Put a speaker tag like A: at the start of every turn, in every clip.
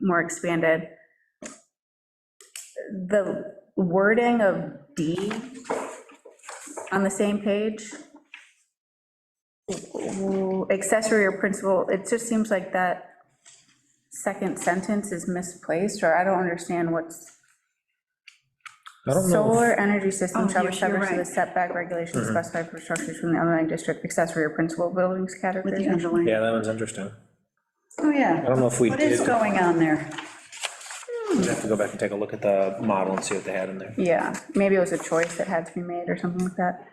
A: more expanded. The wording of D on the same page, accessory or principal, it just seems like that second sentence is misplaced, or I don't understand what's.
B: I don't know.
A: Solar energy system
C: Oh,
A: shall be
C: yes, you're
A: subject to the
C: right.
A: setback
B: Mm-hmm.
A: regulations specified for structures from the underlying district accessory or principal buildings
C: with the
A: category.
C: underline.
B: Yeah, that one's interesting.
C: Oh, yeah.
B: I don't know if we
C: What is
B: did-
C: going on there?
B: We'd have to go back and take a look at the model and see what they had in there.
A: Yeah, maybe it was a choice that had to be made or something like that.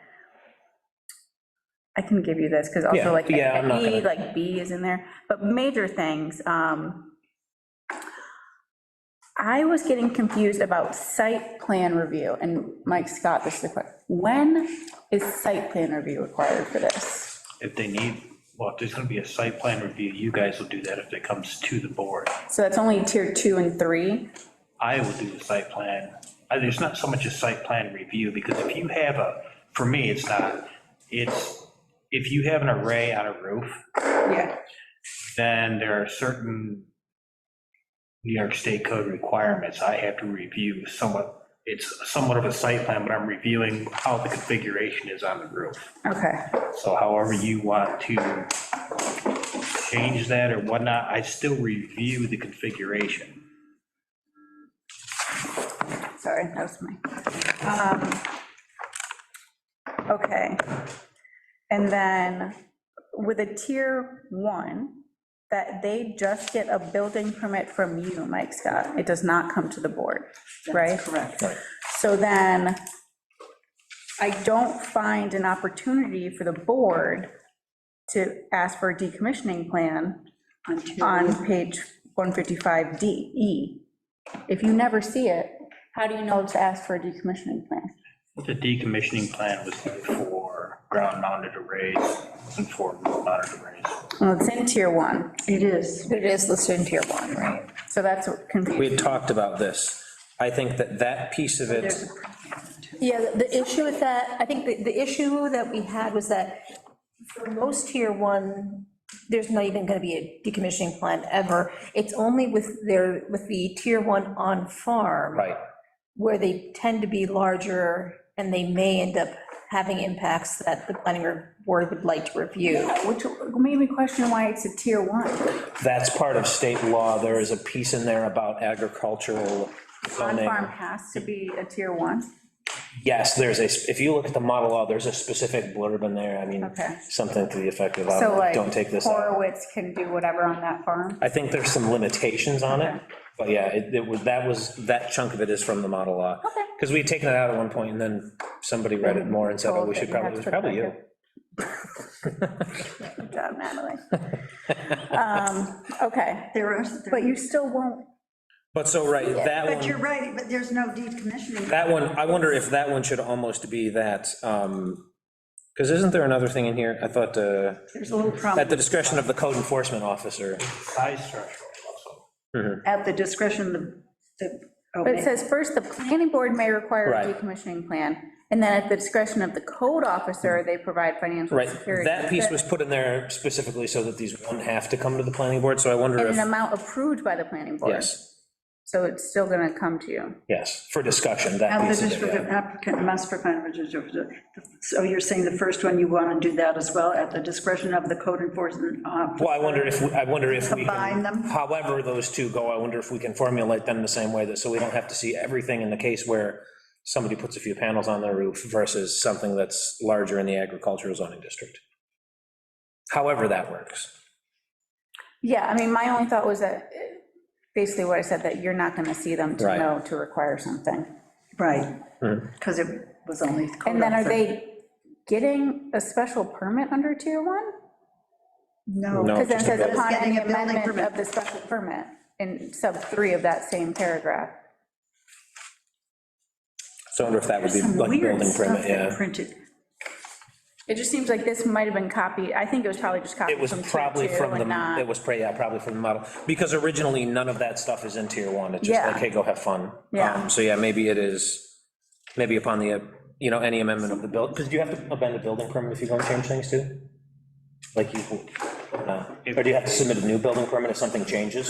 A: I can give you this, because
B: Yeah,
A: also like,
B: yeah, I'm not
A: E,
B: gonna-
A: like B is in there, but major things. um, I was getting confused about site plan review, and Mike Scott, this is the question, when is site plan review required for this?
D: If they need, well, if there's gonna be a site plan review, you guys will do that if it comes to the board.
A: So that's only tier two and three?
D: I will do the site plan. I- There's not so much a site plan review, because if you have a, for me, it's not, it's, if you have an array on a roof,
A: Yeah.
D: then there are certain New York State Code requirements I have to review somewhat, it's somewhat of a site plan, but I'm reviewing how the configuration is on the roof.
A: Okay,
D: So however you want to change that or whatnot, I still review the configuration.
A: sorry, that was my. um, Okay. And then with a tier one, that they just get a building permit from you, Mike Scott. It does not come to the board, right?
C: Correct.
A: So then I don't find an opportunity for the board to ask for a decommissioning plan
C: On two.
A: on page 155D, E. If you never see it, how do you know to ask for a decommissioning plan?
D: The decommissioning plan was for ground mounted arrays and for road mounted arrays.
A: Well, it's in tier one,
C: It is.
E: It is listed in tier one, right?
A: so that's
B: We
A: confusing.
B: had talked about this. I think that that piece of it,
C: There's a-
E: Yeah, the- the issue with that, I think the, the issue that we had was that for most tier one, there's not even gonna be a decommissioning plan ever. It's only with their, with the tier one on farm.
B: right,
E: Where they tend to be larger and they may end up having impacts that the planning board would like to review.
A: Which made me question why it's a tier one.
B: that's part of state law. There is a piece in there about agricultural zoning.
A: On-farm has to be a tier one.
B: Yes, there's a, if you look at the model law, there's a specific blurb in there, I mean,
A: Okay.
B: something to the effect of,
A: So
B: um,
A: like
B: don't take this out.
A: Horowitz can do whatever on that farm.
B: I think there's some limitations on it, but yeah, it, it was, that was, that chunk of it is from the model law.
A: Okay.
B: Because we had taken it out at one point, and then somebody read it more and said, oh, we should probably, it was probably you.
A: Good job, Natalie. Um, Okay,
C: There is. there-
A: but you still won't,
B: But so, right, that
C: But you're
B: one,
C: right, but there's no decommissioning.
B: that one, I wonder if that one should almost be that, um, because isn't there another thing in here, I thought, uh,
C: There's a little
B: at the
C: problem.
B: discretion of the code enforcement officer,
D: Size threshold also.
C: At the discretion of the. oh,
A: but it says first, the planning board may require a
B: Right.
A: decommissioning plan, and then at the discretion of the code officer, they provide financial
B: right,
A: security.
B: that piece was put in there specifically so that these wouldn't have to come to the planning board, so I wonder
A: And an
B: if,
A: amount approved by the planning board.
B: yes,
A: So it's still gonna come to you.
B: yes, for discussion, that
C: At the
B: piece of
C: district
B: it,
C: of
B: yeah.
C: applicant must provide. So you're saying the first one, you want to do that as well, at the discretion of the code enforcement officer?
B: Well, I wonder if, we- I wonder if we
C: Combine
B: can,
C: them?
B: however those two go, I wonder if we can formulate them the same way, that, so we don't have to see everything in the case where somebody puts a few panels on their roof versus something that's larger in the agricultural zoning district. However that works.
A: Yeah, I mean, my only thought was that, eh, basically what I said, that you're not gonna see them to
B: Right.
A: know to require something.
C: Right,
B: Mm-hmm.
C: because it was only. code
A: And then are
C: officer.
A: they getting a special permit under tier one?
B: No.
C: No,
A: Because then it
B: just a
A: says
B: building.
A: upon any
C: Getting a building
A: amendment
C: permit.
A: of the special permit in sub three of that same paragraph.
B: So I wonder if that would be
C: some
B: like
C: weird
B: building
C: stuff
B: permit,
C: that
B: yeah.
C: printed.
A: It just seems like this might have been copied, I think it was probably just copied
B: It was
A: from tier
B: probably
A: two
B: from
A: and
B: the,
A: not-
B: it was, pra- yeah, probably from the model, because originally, none of that stuff is in tier one, it's just
A: Yeah.
B: like, hey, go have fun.
A: Yeah.
B: Um, So, yeah, maybe it is, maybe upon the, uh, you know, any amendment of the build, because do you have to amend the building permit if you go and change things too? Like you, no, or do you have to submit a new building permit if something changes?